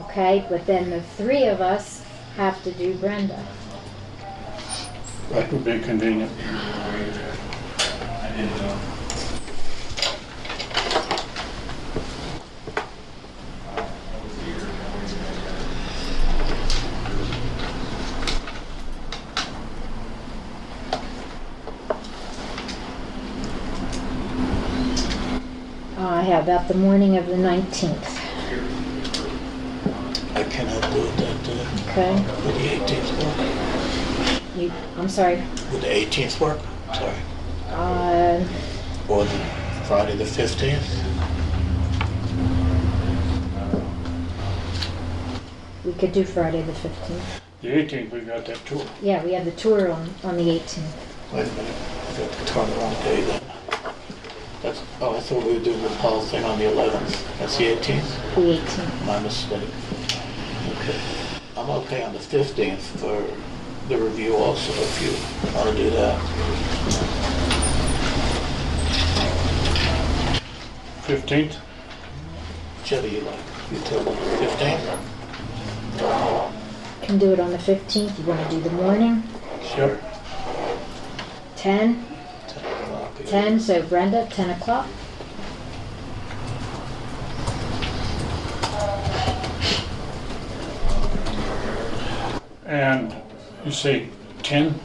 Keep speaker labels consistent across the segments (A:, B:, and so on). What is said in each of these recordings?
A: Okay, but then the three of us have to do Brenda.
B: That would be convenient.
A: Uh, how about the morning of the 19th?
C: I cannot do it that day.
A: Okay,
C: Would the 18th work?
A: you, I'm sorry,
C: Would the 18th work? Sorry.
A: uh,
C: Or the Friday the 15th?
A: we could do Friday the 15th.
B: The 18th, we got that tour.
A: Yeah, we have the tour on, on the 18th.
C: Wait a minute. I got the turnaround day then. That's, oh, I thought we were doing the whole thing on the 11th. That's the 18th?
A: The 18th.
C: My mistake. Okay. I'm okay on the 15th for the review also, if you want to do that.
B: 15th?
C: Whichever you like. You tell me. 15th?
A: Can do it on the 15th. You want to do the morning?
B: Sure.
A: 10?
C: 10 o'clock.
A: 10, so Brenda, 10 o'clock.
B: And you say 10?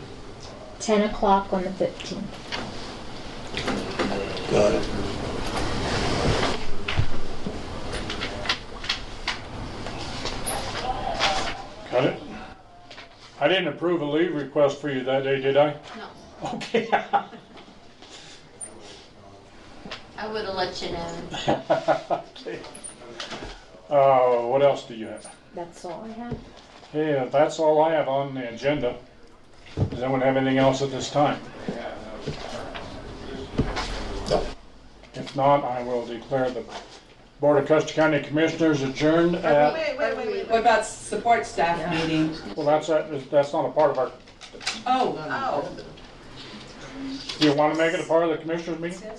A: 10 o'clock on the 15th.
C: Got it.
B: Got it? I didn't approve a leave request for you that day, did I?
D: No,
B: Okay. Uh,
D: I would have let you know.
B: Okay. Uh, what else do you have?
A: That's all I have.
B: Yeah, that's all I have on the agenda. Does anyone have anything else at this time?
C: No.
B: If not, I will declare the Board of Custer County Commissioners adjourned at,
E: Wait, wait, wait, wait.
F: What about support staff meeting?
B: well, that's, that's not a part of our,
F: Oh, oh.
B: do you want to make it a part of the Commissioners meeting?
E: Oh.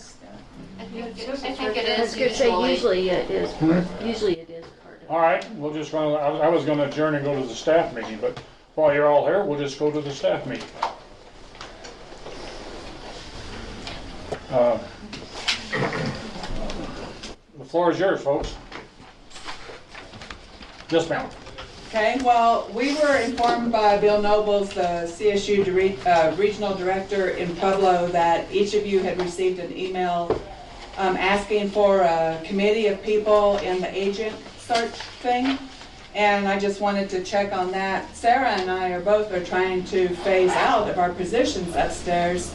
D: I think it- I think it
G: I
D: is
G: was gonna
D: usually.
G: say, usually it is, part- usually it is part of.
B: All right, we'll just run, I I was gonna adjourn and go to the staff meeting, but while you're all here, we'll just go to the staff meeting. Uh, The floor is yours, folks. Yes, ma'am.
F: Okay, well, we were informed by Bill Nobles, the CSU dire- uh, Regional Director in Pueblo, that each of you had received an email um, asking for a committee of people in the agent search thing. And I just wanted to check on that. Sarah and I are both are trying to phase out of our positions upstairs.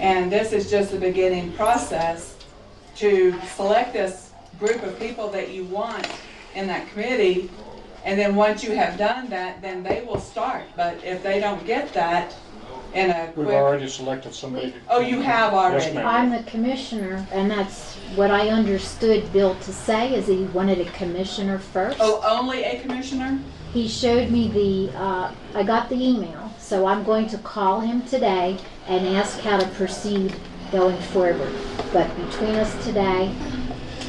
F: And this is just the beginning process to select this group of people that you want in that committee. And then once you have done that, then they will start. But if they don't get that in a
B: We've
F: quick,
B: already selected somebody. to-
F: oh, you have
B: Yes,
F: already.
B: ma'am.
A: I'm the commissioner, and that's what I understood Bill to say, is he wanted a commissioner first.
F: Oh, only a commissioner?
A: He showed me the, uh, I got the email, so I'm going to call him today and ask how to proceed going forward. But between us today,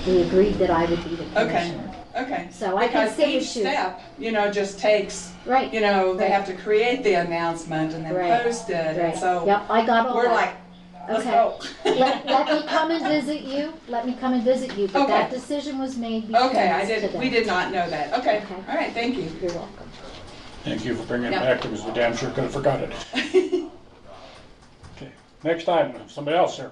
A: we agreed that I would be the
F: Okay,
A: commissioner.
F: okay.
A: So I can
F: Because
A: see
F: each
A: what you-
F: step, you know, just takes, you
A: Right,
F: know, they
A: Right.
F: have to create the announcement and
A: Right.
F: then post it.
A: right.
F: And so
A: Yep, I got all
F: we're like,
A: that.
F: let's
A: Okay.
F: go.
A: Let, let me come and visit you, let me come and visit you, but
F: Okay.
A: that decision was made between us
F: Okay, I
A: today.
F: did, we did not know that. Okay,
A: Okay.
F: all right, thank you.
A: You're welcome.
B: Thank you for bringing it
F: Yep.
B: back, because we damn sure could have forgot it. Okay. Next item, somebody else here.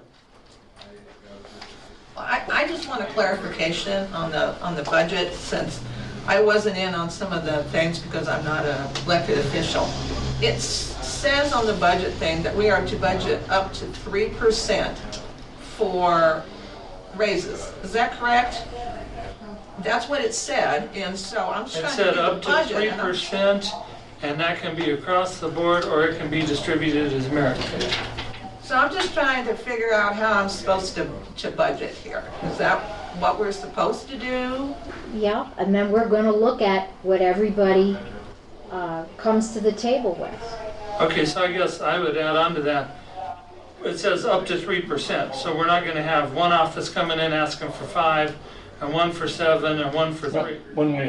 H: I, I just want a clarification on the, on the budget, since I wasn't in on some of the things because I'm not an elected official. It s- says on the budget thing that we are to budget up to three percent for raises. Is that correct? That's what it said, and so I'm just
I: It
H: trying to do
I: said
H: the
I: up to
H: budget.
I: three
H: and I'm-
I: percent, and that can be across the board, or it can be distributed as merit pay.
H: So I'm just trying to figure out how I'm supposed to, to budget here. Is that what we're supposed to do?
A: Yeah, and then we're gonna look at what everybody, uh, comes to the table with.
I: Okay, so I guess I would add on to that. It says up to three percent, so we're not gonna have one office coming in asking for five, and one for seven, and one for three.
B: When we